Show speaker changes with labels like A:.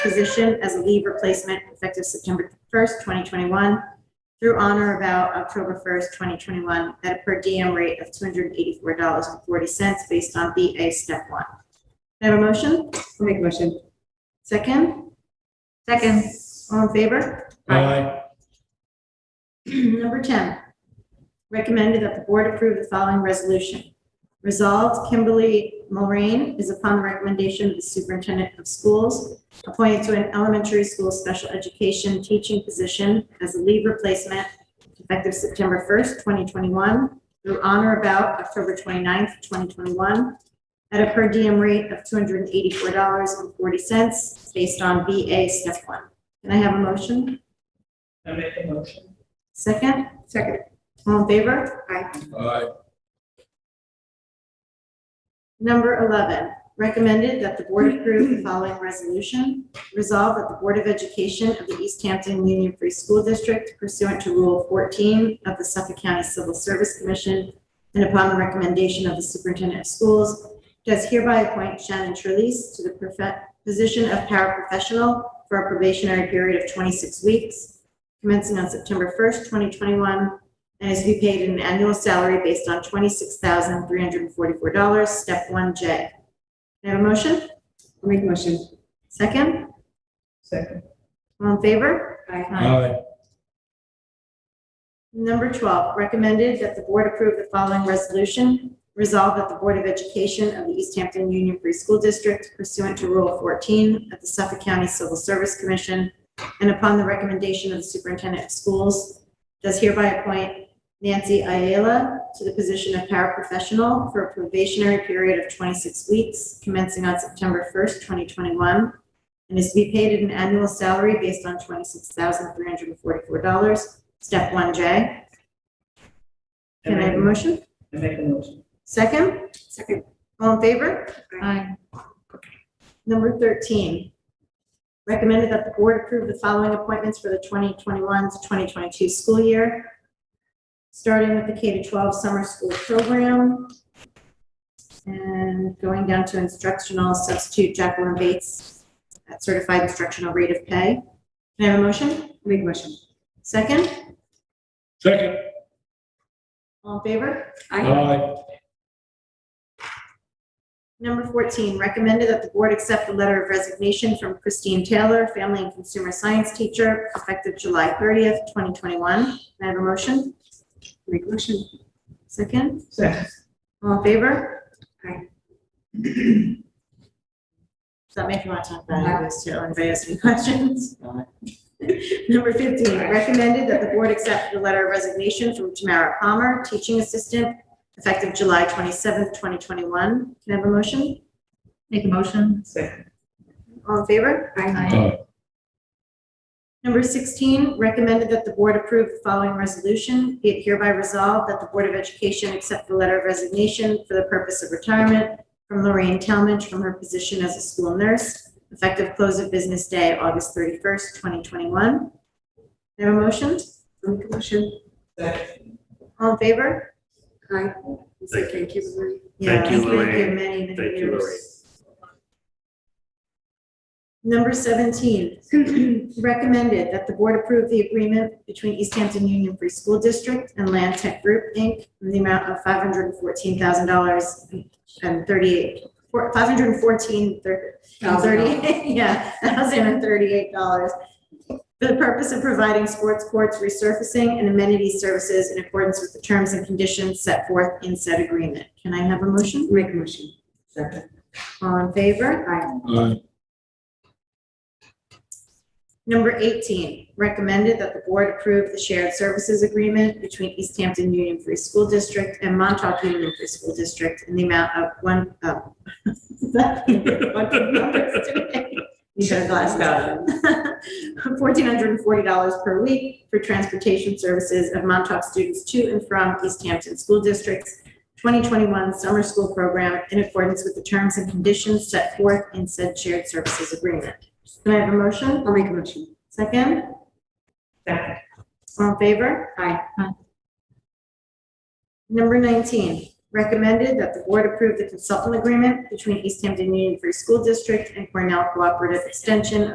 A: position as a leave replacement effective September 1st, 2021 through on or about October 1st, 2021 at a per diem rate of $284.40 based on BA Step 1. May I have a motion?
B: I'll make a motion.
A: Second? Second. All in favor?
C: Aye.
A: Number 10, recommended that the board approve the following resolution. Resolved, Kimberly Mulrain is upon the recommendation of the superintendent of schools, appointed to an elementary school special education teaching position as a leave replacement effective September 1st, 2021 through on or about October 29th, 2021, at a per diem rate of $284.40 based on BA Step 1. Can I have a motion?
B: I'll make a motion.
A: Second?
B: Second.
A: All in favor? Aye.
C: Aye.
A: Number 11, recommended that the board approve the following resolution. Resolve that the Board of Education of the East Hampton Union Free School District pursuant to Rule 14 of the Suffolk County Civil Service Commission and upon the recommendation of the Superintendent of Schools, does hereby appoint Shannon Trelease to the profe- position of paraprofessional for a probationary period of 26 weeks commencing on September 1st, 2021 and is to be paid an annual salary based on twenty-six thousand three hundred and forty-four dollars, step one J. May I have a motion?
B: I'll make a motion.
A: Second?
B: Second.
A: All in favor?
B: Aye.
C: Aye.
A: Number twelve, recommended that the board approve the following resolution. Resolve that the Board of Education of the East Hampton Union Free School District pursuant to Rule fourteen of the Suffolk County Civil Service Commission and upon the recommendation of the Superintendent of Schools, does hereby appoint Nancy Ayala to the position of paraprofessional for a probationary period of twenty-six weeks commencing on September first, twenty twenty-one, and is to be paid at an annual salary based on twenty-six thousand three hundred and forty-four dollars, step one J. Can I have a motion?
B: I make a motion.
A: Second?
B: Second.
A: All in favor? Aye. Number 13, recommended that the board approve the following appointments for the 2021 to 2022 school year, starting with the K-12 summer school program and going down to instructional substitute Jacqueline Bates at certified instructional rate of pay. Can I have a motion?
B: Make a motion.
A: Second?
C: Second.
A: All in favor?
C: Aye.
A: Number 14, recommended that the board accept the letter of resignation from Christine Taylor, Family and Consumer Science teacher, effective July 30th, 2021. Can I have a motion?
B: Make a motion.
A: Second?
B: Second.
A: All in favor?
B: Aye.
A: Does that make you want to talk about any of those too? Anybody has any questions? Number 15, recommended that the board accept the letter of resignation from Tamara Palmer, teaching assistant, effective July 27th, 2021. Can I have a motion?
D: Make a motion.
B: Second.
A: All in favor?
C: Aye.
A: Number 16, recommended that the board approve the following resolution. Be it hereby resolved that the Board of Education accept the letter of resignation for the purpose of retirement from Lorraine Talmadge from her position as a school nurse, effective close of business day, August 31st, 2021. May I Have a motion?
B: Make a motion. Second.
A: All in favor?
B: Aye. Say thank you, Lorraine.
A: Yeah,
E: Thank you,
A: it's been
E: Lorraine.
A: good Many, many
E: Thank you,
A: years. Number 17, recommended that the board approve the agreement between East Hampton Union Free School District and Land Tech Group, Inc., in the amount of $514,000 and 38, four- 514, thir-
B: Thousand dollars.
A: 38, yeah, $1,038 for the purpose of providing sports courts resurfacing and amenity services in accordance with the terms and conditions set forth in said agreement. Can I have a motion?
B: Make a motion. Second.
A: All in favor? Aye.
C: Aye.
A: Number 18, recommended that the board approve the shared services agreement between East Hampton Union Free School District and Montauk Union Free School District in the amount of one, oh. Is that- what the numbers today? You should have glassed out. $1,440 per week for transportation services of Montauk students to and from East Hampton School District's 2021 summer school program in accordance with the terms and conditions set forth in said shared services agreement. Can I have a motion?
B: I'll make a motion.
A: Second,
B: Second.
A: all in favor?
B: Aye.
A: Number 19, recommended that the board approve the consultant agreement between East Hampton Union Free School District and Cornell Cooperative Extension